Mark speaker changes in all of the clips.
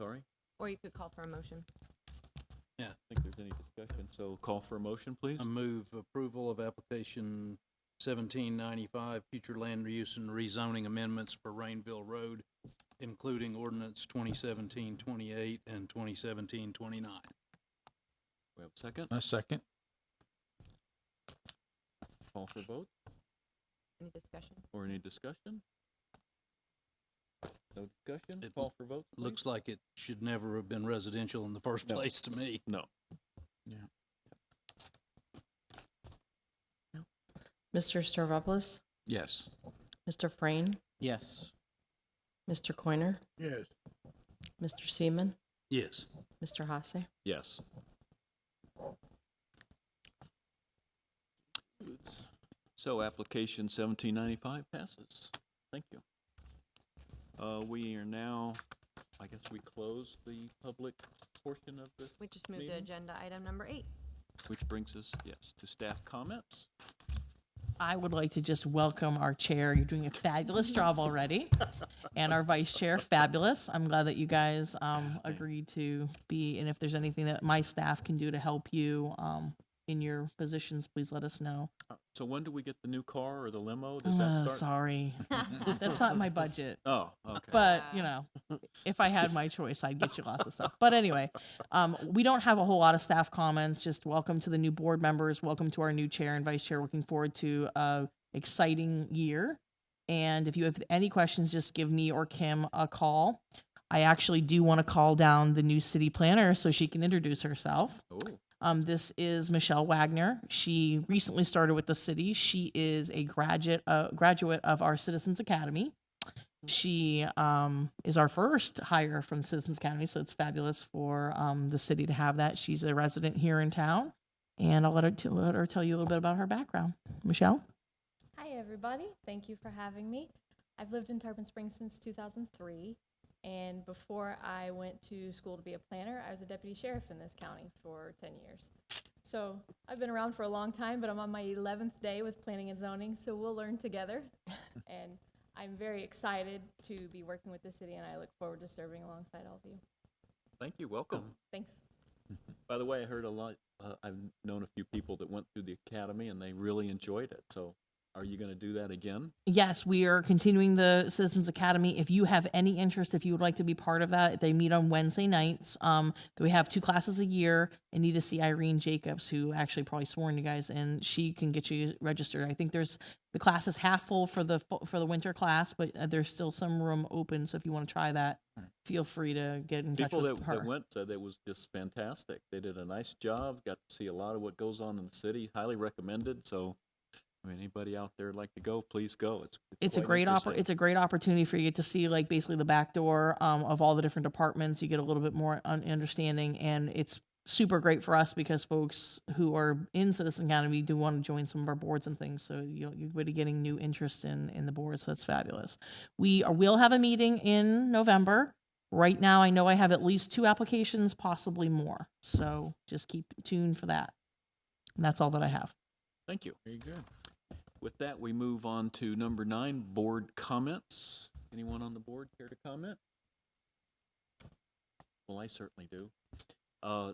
Speaker 1: sorry?
Speaker 2: Or you could call for a motion.
Speaker 1: Yeah. I think there's any discussion, so call for a motion, please.
Speaker 3: I move approval of application seventeen ninety-five, future land use and rezoning amendments for Rainville Road, including ordinance 2017-28 and 2017-29.
Speaker 1: We have a second,
Speaker 3: uh,
Speaker 4: I second.
Speaker 1: call for vote,
Speaker 2: Any discussion?
Speaker 1: or any discussion? No discussion,
Speaker 3: It
Speaker 1: call for vote, please.
Speaker 3: Looks like it should never have been residential in the first
Speaker 1: No.
Speaker 3: place to me.
Speaker 5: Mr. Stavropoulos,
Speaker 3: Yes.
Speaker 5: Mr. Frame,
Speaker 4: Yes.
Speaker 5: Mr. Coiner,
Speaker 4: Yes.
Speaker 5: Mr. Seaman,
Speaker 3: Yes.
Speaker 5: Mr. Hasse.
Speaker 1: Yes. So application seventeen ninety-five passes. Thank you. Uh, we are now, I guess we close the public portion of this,
Speaker 2: We just moved to
Speaker 1: Meeting?
Speaker 2: agenda item number eight.
Speaker 1: which brings us, yes, to staff comments.
Speaker 6: I would like to just welcome our chair. You're doing a fabulous job already. And our vice chair, fabulous. I'm glad that you guys um, agreed to be, and if there's anything that my staff can do to help you um, in your positions, please let us know.
Speaker 1: So when do we get the new car or the limo? Does that
Speaker 6: Uh,
Speaker 1: start?
Speaker 6: Sorry, that's not in my budget.
Speaker 1: Oh, okay.
Speaker 6: But
Speaker 2: Yeah.
Speaker 6: you know, if I had my choice, I'd get you lots of stuff. But anyway, um, we don't have a whole lot of staff comments. Just welcome to the new board members. Welcome to our new chair and vice chair. Looking forward to a exciting year. And if you have any questions, just give me or Kim a call. I actually do want to call down the new city planner so she can introduce herself.
Speaker 1: Oh,
Speaker 6: Um, this is Michelle Wagner. She recently started with the city. She is a graduate uh, graduate of our Citizens Academy. She um, is our first hire from Citizens Academy, so it's fabulous for um, the city to have that. She's a resident here in town, and I'll let her, t- let her tell you a little bit about her background. Michelle,
Speaker 7: Hi, everybody. Thank you for having me. I've lived in Tarpon Springs since 2003. And before I went to school to be a planner, I was a deputy sheriff in this county for 10 years. So I've been around for a long time, but I'm on my 11th day with planning and zoning, so we'll learn together. and I'm very excited to be working with the city, and I look forward to serving alongside all of you.
Speaker 1: thank you, welcome.
Speaker 7: Thanks.
Speaker 1: By the way, I heard a lot, uh, I've known a few people that went through the academy and they really enjoyed it. So are you gonna do that again?
Speaker 6: Yes, we are continuing the Citizens Academy. If you have any interest, if you would like to be part of that, they meet on Wednesday nights. Um, we have two classes a year and need to see Irene Jacobs, who actually probably sworn you guys, and she can get you registered. I think there's the class is half full for the fu- for the winter class, but uh, there's still some room open. So if you want to try that, feel free to get in touch
Speaker 1: People
Speaker 6: with
Speaker 1: that,
Speaker 6: her.
Speaker 1: that went said it was just fantastic. They did a nice job, got to see a lot of what goes on in the city, highly recommended. So, I mean, anybody out there like to go, please go. It's,
Speaker 6: it's a
Speaker 1: quite
Speaker 6: great oppor-
Speaker 1: interesting.
Speaker 6: it's a great opportunity for you to get to see like basically the back door um, of all the different departments. You get a little bit more un- understanding, and it's super great for us because folks who are in Citizen Academy do want to join some of our boards and things. So you you're really getting new interest in in the board. So that's fabulous. We are, will have a meeting in November. Right now, I know I have at least two applications, possibly more. So just keep tuned for that. And that's all that I have.
Speaker 1: Thank you.
Speaker 4: Very good.
Speaker 1: With that, we move on to number nine, board comments. Anyone on the board care to comment? Well, I certainly do. Uh,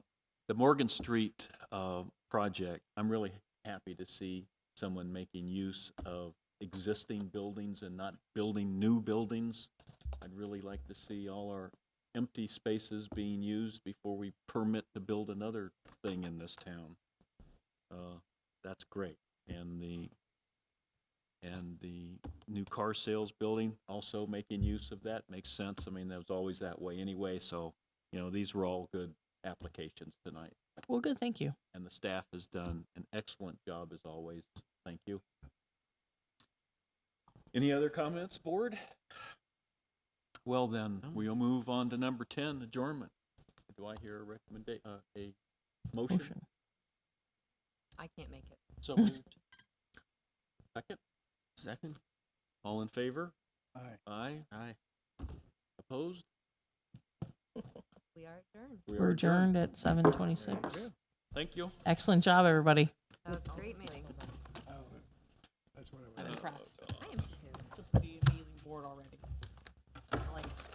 Speaker 1: The Morgan Street uh, project, I'm really happy to see someone making use of existing buildings and not building new buildings. I'd really like to see all our empty spaces being used before we permit to build another thing in this town. Uh, That's great. And the and the new car sales building, also making use of that makes sense. I mean, that was always that way anyway, so, you know, these were all good applications tonight.
Speaker 6: Well, good. Thank you.
Speaker 1: And the staff has done an excellent job as always. Thank you. Any other comments, board? Well then, we'll move on to number ten, adjournment. Do I hear a recommendation? uh, a motion?
Speaker 6: Motion.
Speaker 2: I can't make it.
Speaker 4: So moved.
Speaker 1: Second?
Speaker 4: Second.
Speaker 1: All in favor?
Speaker 4: Aye.
Speaker 1: Aye?
Speaker 4: Aye.
Speaker 1: Opposed?
Speaker 2: We are adjourned.
Speaker 1: We
Speaker 6: We're
Speaker 1: are
Speaker 6: adjourned at seven twenty
Speaker 1: There you go.
Speaker 6: six.
Speaker 1: Thank you.
Speaker 6: Excellent job, everybody.
Speaker 2: That was a great meeting.
Speaker 6: I'm impressed.
Speaker 2: I am too.
Speaker 6: It's a pretty amazing board already. I like it.